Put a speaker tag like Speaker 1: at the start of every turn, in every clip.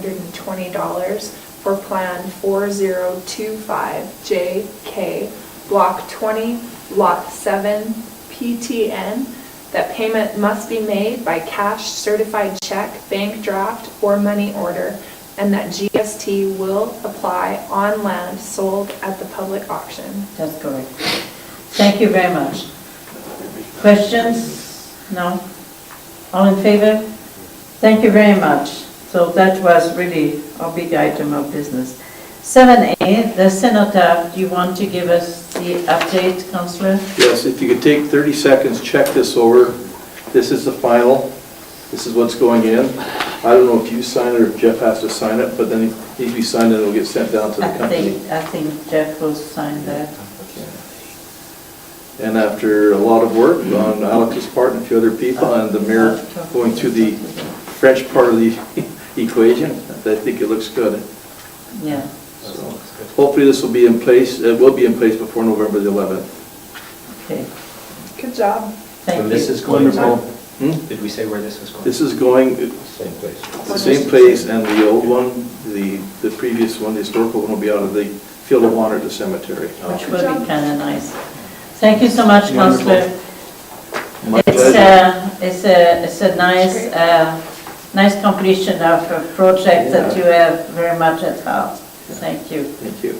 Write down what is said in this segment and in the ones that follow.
Speaker 1: $58,620 for Plan 4025JK, Block 20, Lot 7, PTN, that payment must be made by cash certified check, bank draft, or money order, and that GST will apply on land sold at the public auction.
Speaker 2: That's correct. Thank you very much. Questions? No? All in favor? Thank you very much. So that was really a big item of business. 7A, the cenotaph, do you want to give us the update, Counselor?
Speaker 3: Yes, if you could take 30 seconds, check this over. This is the final. This is what's going in. I don't know if you sign it or if Jeff has to sign it, but then it needs to be signed and it'll get sent down to the
Speaker 2: I
Speaker 3: company.
Speaker 2: think, I think Jeff will sign that.
Speaker 3: And after a lot of work on Alex's part and a few other people and the
Speaker 2: uh,
Speaker 3: mayor going through the French part of the equation, I think it looks good.
Speaker 2: Yeah.
Speaker 3: So Hopefully this will be in place, it will be in place before November the 11th.
Speaker 2: Okay,
Speaker 1: Good job.
Speaker 2: thank
Speaker 4: And
Speaker 2: you.
Speaker 4: this is going to,
Speaker 3: Hmm?
Speaker 4: did we say where this was going?
Speaker 3: This is going,
Speaker 4: Same place.
Speaker 3: The same place, and the old one, the, the previous one, the historical one, will be out of the Field of Honor at the cemetery.
Speaker 2: Which will be kind of nice. Thank you so much, Counselor.
Speaker 3: My
Speaker 2: It's uh,
Speaker 3: pleasure.
Speaker 2: a, it's a, it's a nice, uh, nice completion of a project that you have very much at heart. Thank you.
Speaker 3: Thank you.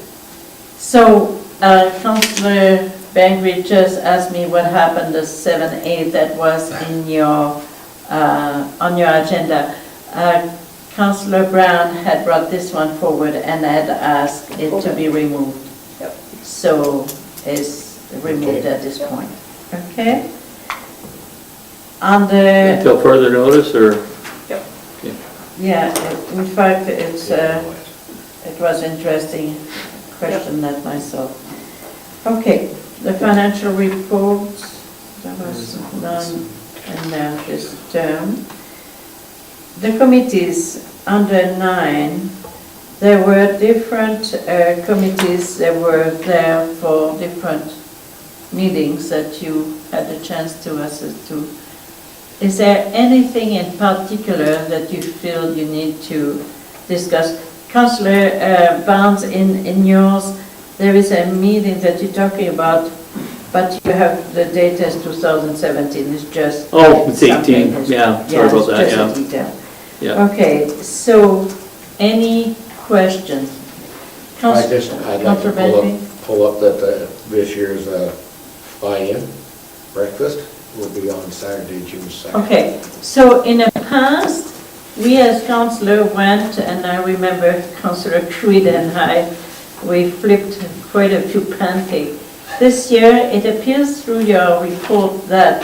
Speaker 2: So, uh, Councillor Bangry just asked me what happened to seven A that was in your, uh, on your agenda. Uh, Councillor Brown had brought this one forward and had asked it to be removed.
Speaker 1: Yep.
Speaker 2: So it's removed at this point, okay? Under,
Speaker 5: Until further notice, or?
Speaker 1: Yep.
Speaker 2: yeah, in fact, it's, uh, it was interesting question that myself. Okay, the financial reports, there was none in there this term. The committees, under nine, there were different uh, committees that were there for different meetings that you had the chance to assist to. Is there anything in particular that you feel you need to discuss? Councillor uh, Barnes, in, in yours, there is a meeting that you're talking about, but you have, the date as 2017, it's just.
Speaker 5: Oh, it's 18,
Speaker 2: something is-
Speaker 5: yeah, sorry about that,
Speaker 2: it's just
Speaker 5: yeah,
Speaker 2: a detail.
Speaker 5: yeah.
Speaker 2: Okay, so, any questions?
Speaker 6: I
Speaker 2: Councillor
Speaker 6: just, I'd like to pull up, pull up that uh, this year's uh, buy-in breakfast will be on Saturday, June 2nd.
Speaker 2: Okay, so in the past, we as councillor went, and I remember councillor Creed and I, we flipped quite a few pancakes. This year, it appears through your report that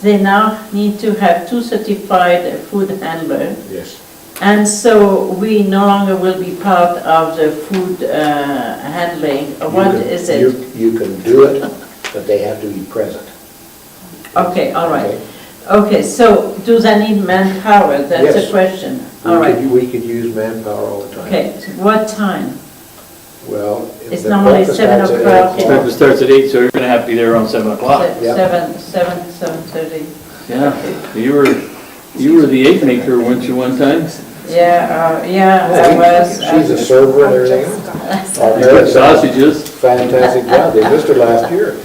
Speaker 2: they now need to have two certified food handlers.
Speaker 6: Yes,
Speaker 2: And so we no longer will be part of the food uh, handling. What
Speaker 6: You can-
Speaker 2: is it?
Speaker 6: you- You can do it, but they have to be present.
Speaker 2: Okay, all right.
Speaker 6: Okay?
Speaker 2: Okay, so do they need manpower? That's
Speaker 6: Yes.
Speaker 2: the question.
Speaker 6: We
Speaker 2: All right.
Speaker 6: could- We could use manpower all the time.
Speaker 2: Okay, what time?
Speaker 6: Well.
Speaker 2: It's
Speaker 6: the
Speaker 2: normally
Speaker 6: breakfast
Speaker 2: seven
Speaker 6: starts at eight
Speaker 2: o'clock.
Speaker 5: Breakfast starts at 8, so you're gonna have to be there around 7 o'clock.
Speaker 2: Se-
Speaker 6: yeah.
Speaker 2: Seven, seven, seven thirty.
Speaker 5: Yeah, you were, you were the egg maker, weren't you, one time?
Speaker 2: Yeah, uh, yeah, I
Speaker 6: Oh,
Speaker 2: was. uh,
Speaker 6: she- She's a
Speaker 2: I-
Speaker 6: server and everything. Oh,
Speaker 5: You
Speaker 6: very
Speaker 5: cooked sausages.
Speaker 6: Fantastic job, they missed her last year.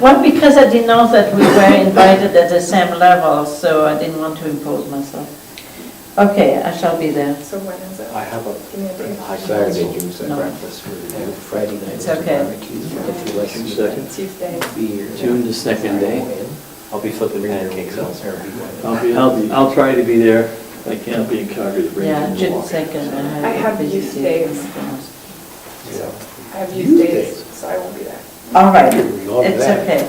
Speaker 2: Well, because I didn't know that we were invited at the same level, so I didn't want to impose myself. Okay, I shall be there.
Speaker 1: So when is it?
Speaker 4: I have a
Speaker 1: Give me a break.
Speaker 6: Saturday, June
Speaker 2: No.
Speaker 6: 2nd.
Speaker 4: breakfast with Friday night.
Speaker 2: It's okay.
Speaker 3: June second.
Speaker 1: Tuesday.
Speaker 4: Be here.
Speaker 5: June the second day.
Speaker 3: eh?
Speaker 4: I'll be flipping pancakes elsewhere.
Speaker 3: I'll be, I'll
Speaker 5: I'll,
Speaker 3: be,
Speaker 5: I'll try to be there.
Speaker 3: I can't be in Calgary to bring
Speaker 2: Yeah,
Speaker 3: you to
Speaker 2: June
Speaker 3: Milwaukee.
Speaker 2: second.
Speaker 1: I have
Speaker 2: a busy
Speaker 1: youth
Speaker 2: day.
Speaker 1: days.
Speaker 6: Yeah.
Speaker 1: I have
Speaker 6: You
Speaker 1: used days,
Speaker 6: did.
Speaker 1: so I won't be there.
Speaker 2: All right,
Speaker 6: Love
Speaker 2: it's
Speaker 6: that.
Speaker 2: okay.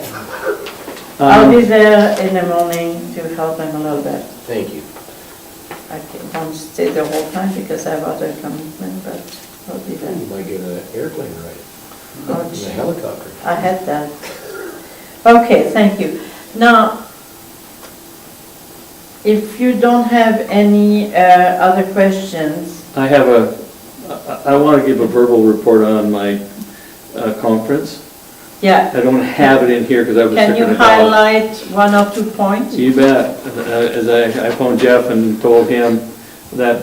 Speaker 2: I'll
Speaker 5: Um,
Speaker 2: be there in the morning to help them a little bit.
Speaker 6: Thank you.
Speaker 2: I can't- won't stay the whole time because I have other commitment, but I'll be there.
Speaker 6: You might get an airplane ride,
Speaker 2: Oh,
Speaker 6: and a
Speaker 2: gee.
Speaker 6: helicopter.
Speaker 2: I had that. Okay, thank you. Now, if you don't have any uh, other questions,
Speaker 5: I have a, I- I want to give a verbal report on my uh, conference.
Speaker 2: yeah,
Speaker 5: I don't have it in here because I was sick
Speaker 2: can
Speaker 5: in
Speaker 2: you
Speaker 5: the dog.
Speaker 2: highlight one or two points?
Speaker 5: You bet. Uh, As I, I phoned Jeff and told him that